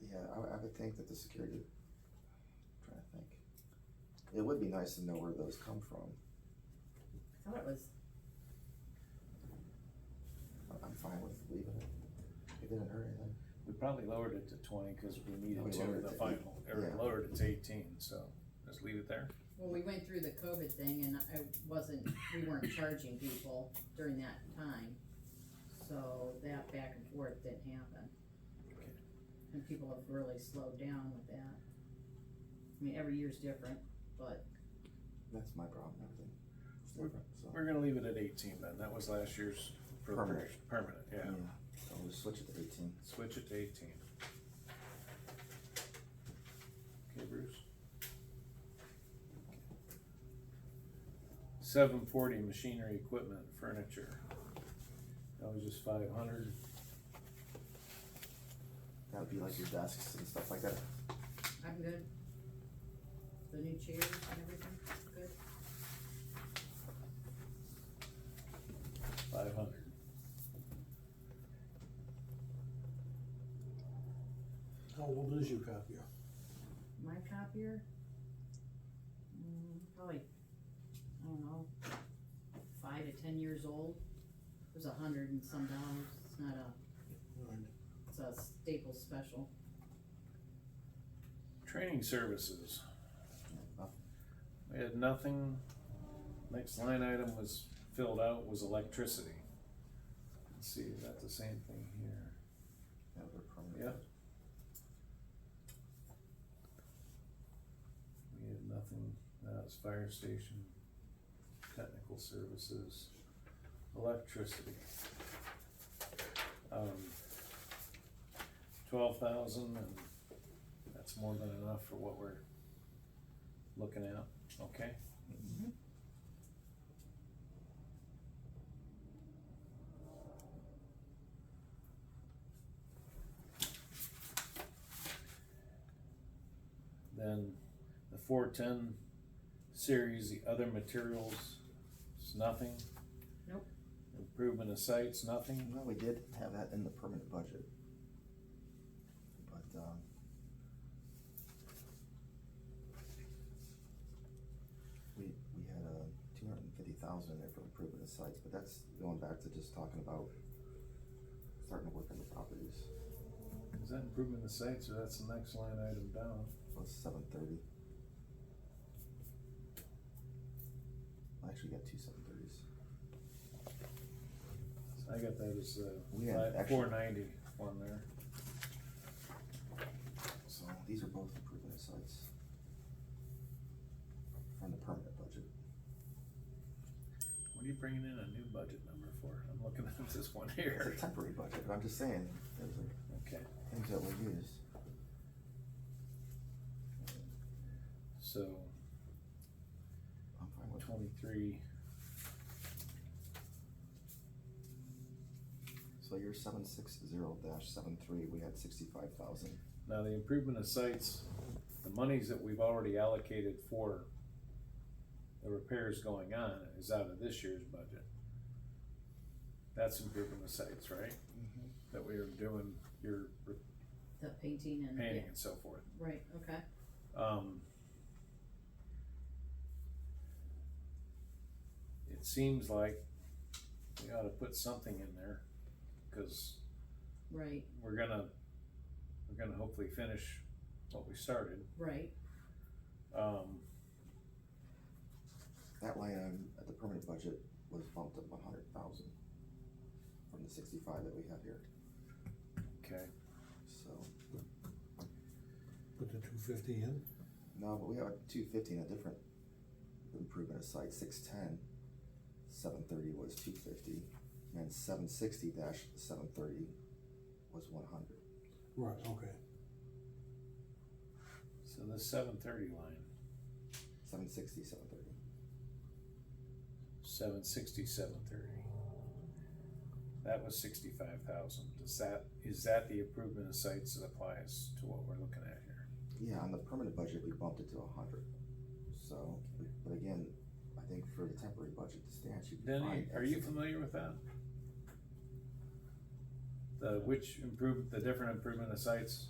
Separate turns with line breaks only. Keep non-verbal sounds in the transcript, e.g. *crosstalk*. Yeah, I, would- I would think that the security, trying to think. It would be nice to know where those come from.
I thought it was,
I- I'm fine with leaving it. It didn't hurt anything.
We probably lowered it to twenty, cause we
We
needed to
lowered
with the
it to eight.
final, or
Yeah.
lowered it to eighteen, so just leave it there.
well, we went through the COVID thing and I wasn't, we weren't charging people during that time. So that back and forth didn't happen. And people have really slowed down with that. I mean, every year's different, but
That's my problem, everything. It's different, so.
We're gonna leave it at eighteen then, that was last year's. for the
Permanent. Mm.
first- Permanent, yeah,
So we switch it to eighteen.
switch it to eighteen. Okay, Bruce? Seven forty, machinery, equipment, furniture. That was just five hundred,
That would be like your desks and stuff like that.
I'm good. The new chairs and everything, good.
five hundred.
How old is your copier?
My copier? Mm, Probably, I don't know, five to ten years old. It was a hundred and some dollars. It's not a, it's a Staples special.
Training services.
Nothing.
We had nothing, next line item was filled out was electricity. Let's see, is that the same thing here?
That was a permanent.
Yeah. We had nothing, that was fire station, technical services, electricity. Um, twelve thousand and that's more than enough for what we're looking at, okay? Then the four ten series, the other materials, it's nothing.
Nope.
Improvement of sites, nothing.
Well, we did have that in the permanent budget. But, um. We, we had, uh, two hundred and fifty thousand in there for improvement of sites, but that's going back to just talking about starting to work on the properties.
Is that improvement of sites or that's the next line item down?
Well, seven thirty. I actually got two seven thirties.
I got that as
We had
uh,
actually-
four ninety one there.
So these are both improvement of sites. From the permanent budget.
What are you bringing in a new budget number for? I'm looking at *laughs* this one
It's a
here.
temporary budget, but I'm just saying, those are
Okay,
things that we use.
so
I'm fine with
twenty-three,
So your seven six zero dash seven three, we had sixty-five thousand.
now the improvement of sites, the monies that we've already allocated for the repairs going on is out of this year's budget. That's improvement of sites, right? That we are doing your
The painting and,
painting
yeah,
and so forth.
right, okay.
Um, it seems like we ought to put something in there, cause
Right,
we're gonna, we're gonna hopefully finish what we started.
right,
Um,
That line item at the permanent budget was bumped up one hundred thousand from the sixty-five that we had here,
okay,
so.
Put the two fifty in?
No, but we have two fifty in a different improvement of site, six ten. Seven thirty was two fifty, and seven sixty dash seven thirty was one hundred.
Right, okay.
so the seven thirty line,
Seven sixty, seven thirty.
seven sixty, seven thirty. That was sixty-five thousand, does that, is that the improvement of sites that applies to what we're looking at here?
Yeah, on the permanent budget, we bumped it to a hundred, so, but again, I think for the temporary budget, the stand should be
Denny,
fine.
are you familiar with that? The which improve, the different improvement of sites?